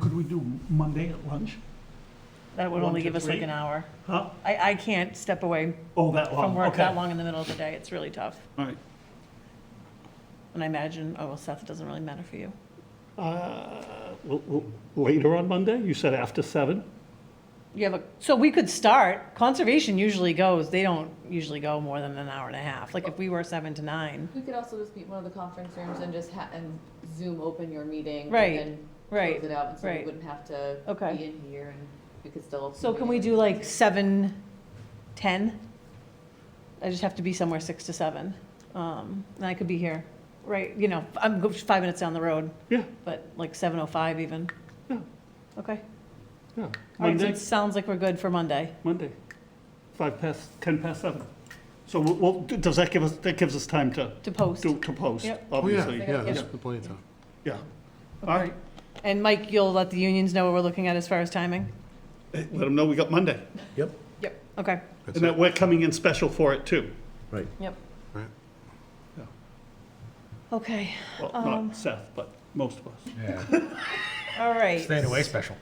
Could we do Monday at lunch? That would One only to give us like three? an hour. Huh? I, I can't step away Oh, that long, from work okay. that long in the middle of the day. It's really tough. All right. And I imagine, oh, well, Seth, it doesn't really matter for you. Uh, l- l- Later on Monday, you said after seven? You have a, so we could start, conservation usually goes, they don't usually go more than an hour and a half. Like if we were seven to nine, We could also just meet in one of the conference rooms and just ha, and Zoom open your meeting. Right, And then right, close it out, and so right. we wouldn't have to Okay. be in here and we could still. open so the can we meeting. do like seven, ten? I just have to be somewhere six to seven. Um, and I could be here, right, you know, I'm go- five minutes down the road, Yeah, but like seven oh five even. Yeah. Okay. yeah. All right, so Monday, it sounds like we're good for Monday. Monday, five past, 10 past seven. So we'll- we'll, does that give us, that gives us time to, to post. to to post, Yep. Oh, yeah, obviously. yeah, there's Yeah. plenty of time. Yeah. All right, And Mike, you'll let the unions know what we're looking at as far as timing? Hey, let them know we got Monday. Yep. Yep. Okay, That's And that it, we're coming in special for it, too. right. yep. Right. Okay, Well, Um, not Seth, but most of us. all right. away special.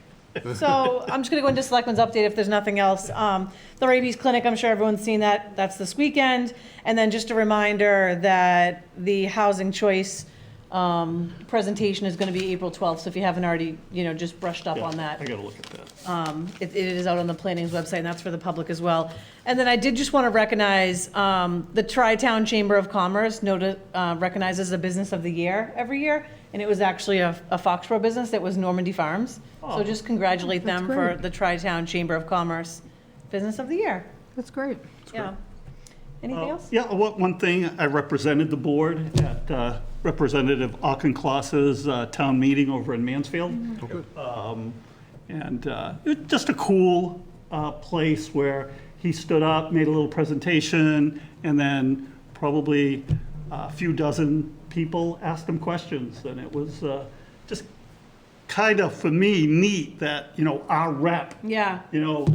So I'm just going to go into Selectmen's update if there's nothing else. Um, The rabies clinic, I'm sure everyone's seen that, that's this weekend. And then just a reminder that the housing choice um, presentation is going to be April 12th. So if you haven't already, you know, just brushed up Yeah, on that. I gotta look at that. Um, It it is out on the planning's website, and that's for the public as well. And then I did just want to recognize um, the Tri-Town Chamber of Commerce noti- uh, recognizes the Business of the Year every year, and it was actually a a Foxborough business that was Normandy Farms. So just congratulate them for the Tri-Town Chamber of Commerce Business of the Year. That's great. Yeah. Anything else? Yeah, one one thing, I represented the board at uh, Representative Auchincloss's uh, town meeting over in Mansfield. Um, And uh, it was just a cool uh, place where he stood up, made a little presentation, and then probably uh, a few dozen people asked him questions. And it was uh, just kind of, for me, neat that, you know, our rep Yeah, you know,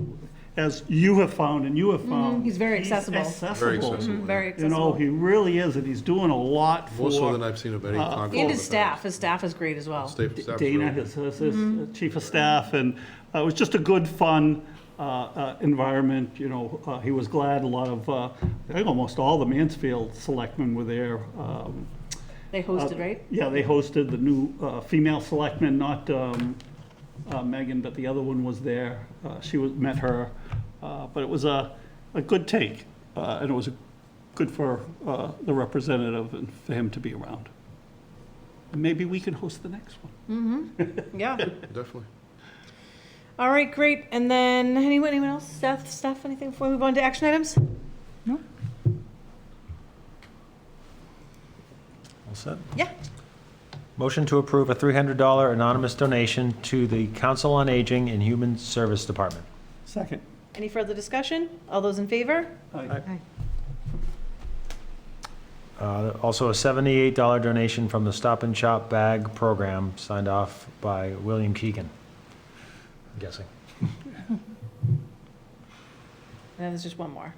as you have found and you have found. Mm-hmm. he's very accessible. Very accessible. accessible. yeah. Mm-hmm. very You know, accessible. he really is, and he's doing a lot for. More so than I've seen of any conference. Uh, And his staff, his staff is great as well. Staff- staff's Dana, really- his, his- his chief of staff, and uh, it was just a good, fun uh, uh, environment, you know. Uh, He was glad, a lot of, uh, I think almost all the Mansfield selectmen were there. Um, They hosted, right? Yeah, they hosted the new uh, female selectman, not um, uh, Megan, but the other one was there. Uh, She was, met her, Uh, but it was a, a good take, uh, and it was good for uh, the representative and for him to be around. And Maybe we can host the next one. Yeah. Definitely. All right, great. And then anyone, anyone else? Seth, Steph, anything before we move on to action items? All set. Yeah. Motion to approve a $300 anonymous donation to the Council on Aging and Human Service Department. Second. Any further discussion? All those in favor? Uh, Also, a $78 donation from the Stop and Shop Bag Program, signed off by William Keegan. I'm guessing. And then there's just one more.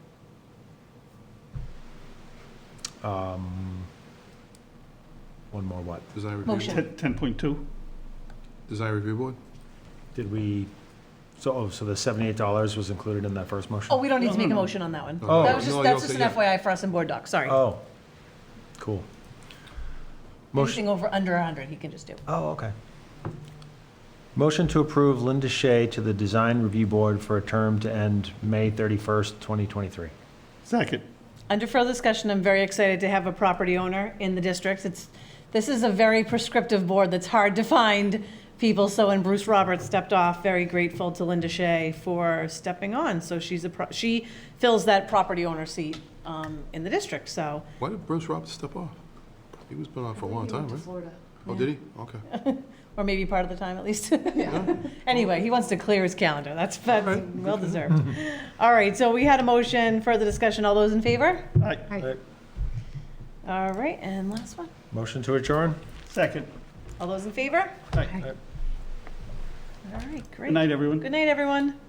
Um, One more what? Design review. Motion. Oh. board. 10.2? Design review board? Did we, so, oh, so the $78 was included in that first motion? Oh, we don't need to make a No, no, no. motion on that one. Oh, That was just, no, that's you'll just an say Uh, yeah. FYI for us in board docs, sorry. Oh, cool. Motion. Anything over, under 100, he can just do. Oh, okay. Motion to approve Linda Shea to the Design Review Board for a term to end May 31st, 2023. Second. Under further discussion, I'm very excited to have a property owner in the districts. It's, this is a very prescriptive board that's hard to find people. So when Bruce Roberts stepped off, very grateful to Linda Shea for stepping on. So she's a, pro- she fills that property owner seat um, in the district, so. Why did Bruce Roberts step off? He was been on for a long time, To right? Florida. Oh, did he? Okay. or maybe part of the time at least. Anyway, he wants to clear his calendar. That's, that's well deserved. All right, so we had a motion, further discussion. All those in favor? Aye. All right, and last one. Motion to adjourn? Second. All those in favor? Aye. All right, Good great. night, everyone. Good night, everyone.